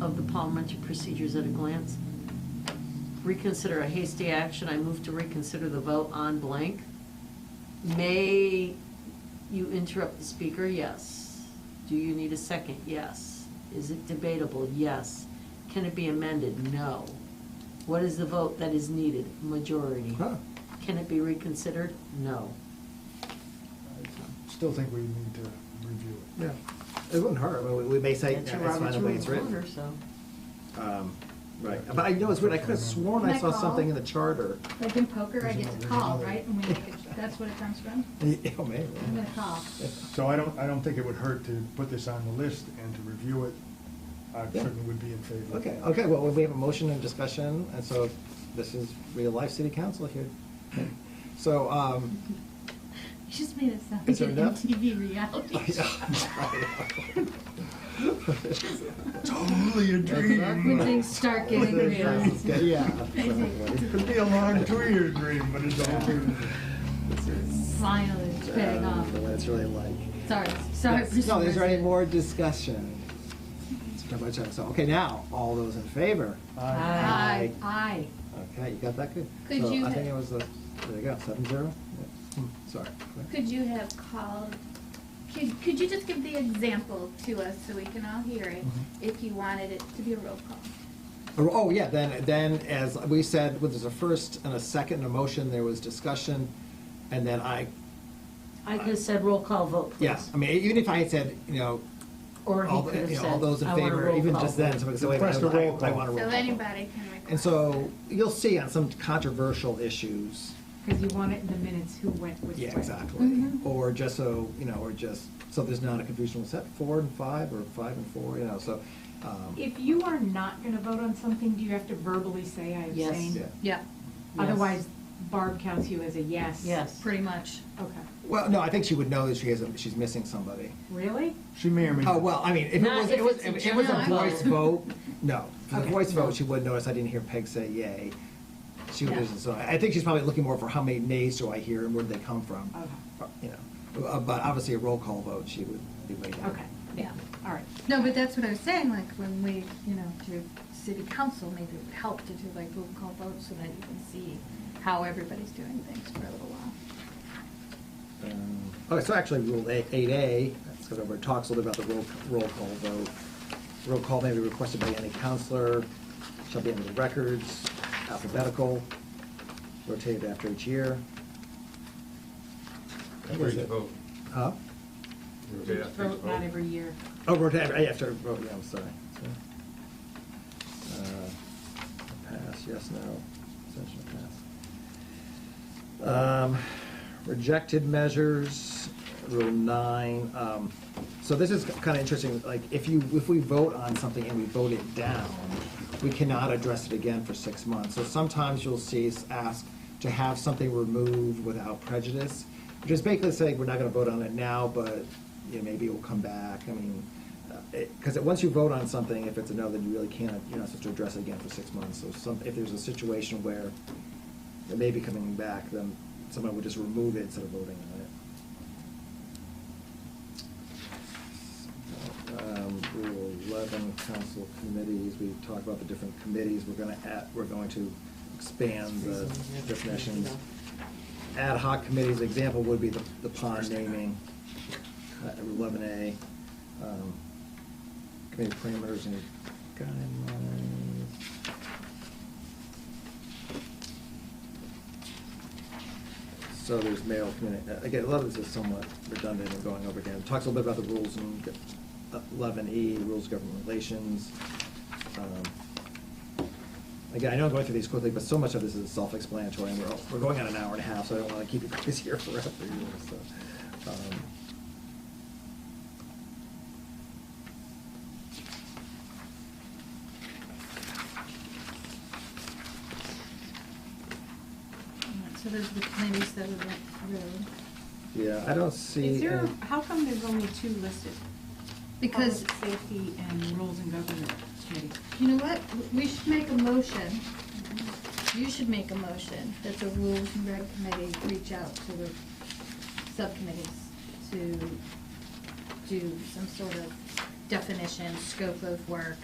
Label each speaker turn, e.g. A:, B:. A: of the parliamentary procedures at a glance. Reconsider a hasty action, I move to reconsider the vote on blank. May you interrupt the speaker? Yes. Do you need a second? Yes. Is it debatable? Yes. Can it be amended? No. What is the vote that is needed? Majority.
B: Huh.
A: Can it be reconsidered? No.
B: I Still think we need to review it.
C: Yeah, it wouldn't hurt, I mean, we- we may say,
A: That's
C: that's
A: your
C: fine the way
A: Robert's
C: it's
A: Rules of Order,
C: written.
A: so.
C: Um, Right, but I know it's weird, I could have sworn
D: Can
C: I
D: I
C: saw
D: call?
C: something in the charter.
D: Like in poker, I get to call, right? And we make it,
C: Yeah.
D: that's what it comes
C: Oh,
D: from?
C: maybe.
D: I'm gonna call.
B: So I don't, I don't think it would hurt to put this on the list and to review it. I
C: Yeah.
B: certainly would be in favor.
C: Okay, okay, well, we have a motion and discussion, and so this is real life city council here. So, um,
D: You just made it sound
C: Is
D: like
C: there
D: an
C: enough?
D: MTV reality.
C: Yeah.
B: Totally a
D: When things start getting real.
C: yeah.
B: Could be a long two-year dream, but it's all.
D: Finally, it's paying off.
C: That's really like.
D: Sorry, sorry.
C: Yes.
D: Mr.
C: No, is there any
D: President.
C: more discussion? It's pretty much it. So, okay, now, all those in favor?
B: Aye.
D: Aye, aye.
C: Okay, you got that good?
E: Could
C: So
E: you
C: I think
E: ha-
C: it was the, there you go, seven zero? Yeah. Hmm, Sorry.
E: Could you have called, could, could you just give the example to us so we can all hear it,
C: Mm-hmm.
E: if you wanted it to be a roll call?
C: Oh, oh, yeah, then, then as we said, well, there's a first and a second, and a motion, there was discussion, and then I,
A: I could have said roll call vote, please.
C: yes, I mean, even if I had said, you know,
A: Or he
C: all,
A: could have
C: you know, all
A: said,
C: those in
A: "I want a
C: favor,
A: roll
C: even
A: call
C: just then,
A: vote."
C: somebody said, wait, I
B: Request a roll
C: I- I
B: call.
C: want a roll
E: So
C: call.
E: anybody can request.
C: And so, you'll see on some controversial issues,
F: Because you want it in the minutes who went which way.
C: Yeah, exactly.
F: Mm-hmm.
C: Or just so, you know, or just, so there's not a confusion with set four and five, or five and four, you know, so. um,
F: If you are not going to vote on something, do you have to verbally say I
A: Yes.
F: abstain?
C: Yeah.
D: Yeah,
A: Yes.
F: Otherwise, Barb counts you as a yes.
A: Yes.
D: pretty much.
F: Okay.
C: Well, no, I think she would know that she has, a- she's missing somebody.
F: Really?
B: She may or may.
C: Oh, well, I mean, if it
A: Not
C: was,
A: if
C: it was,
A: it's a
C: if it was a
A: general
C: voice vote, no. If it was a
F: Okay.
C: voice vote, she would notice, I didn't hear Peg say yay. She would,
F: Yeah.
C: listen. so I I think she's probably looking more for how many nays do I hear and where do they come from?
F: Okay.
C: Uh, You know, Uh, but obviously a roll call vote, she would be way down.
F: Okay.
D: Yeah.
F: All right.
D: No, but that's what I was saying, like, when we, you know, do city council, maybe it would help to do like roll call votes so that you can see how everybody's doing things for a little while.
C: Um, Okay, so actually, Rule eight A, that's sort of where it talks a little bit about the roll, roll call vote. Roll call may be requested by any counselor, shall be in the records, alphabetical, rotated after each year. That was
G: Every
C: it.
G: vote.
C: Huh?
G: Yeah,
F: Just vote not every year.
C: Uh, Oh, rotated, after, vote, yeah, I'm sorry. So, uh, Pass, yes, no, abstention, pass. Um, Rejected measures, rule nine, um, so this is kind of interesting, like, if you, if we vote on something and we vote it down, we cannot address it again for six months. So sometimes you'll see us ask to have something removed without prejudice, which is basically saying, we're not gonna vote on it now, but, you know, maybe it will come back, I mean, uh, because once you vote on something, if it's a no, then you really can't, you're not supposed to address it again for six months. So some, if there's a situation where it may be coming back, then someone would just remove it instead of voting on it. Um, Rule eleven, council committees, we talked about the different committees, we're gonna add, we're going to expand the definitions. Ad hoc committees, example would be the the pond naming, uh, eleven A. um, Committee parameters and guidelines. So there's mail community, again, a lot of this is somewhat redundant and going over again. It Talks a little bit about the rules in eleven E, rules of government relations. Um, Again, I know I'm going through these quickly, but so much of this is self-explanatory, and we're, all- we're going on an hour and a half, so I don't want to keep you guys here forever, you know, so. um,
D: So those are the committees that we went through.
C: Yeah, I don't see.
F: Is there,
C: any-
F: how come there's only two listed?
D: Because,
F: Public safety and rules and government committee.
D: you know what, we should make a motion, you should make a motion that the Rules and Reg Committee reach out to the subcommittees to do some sort of definition, scope of work,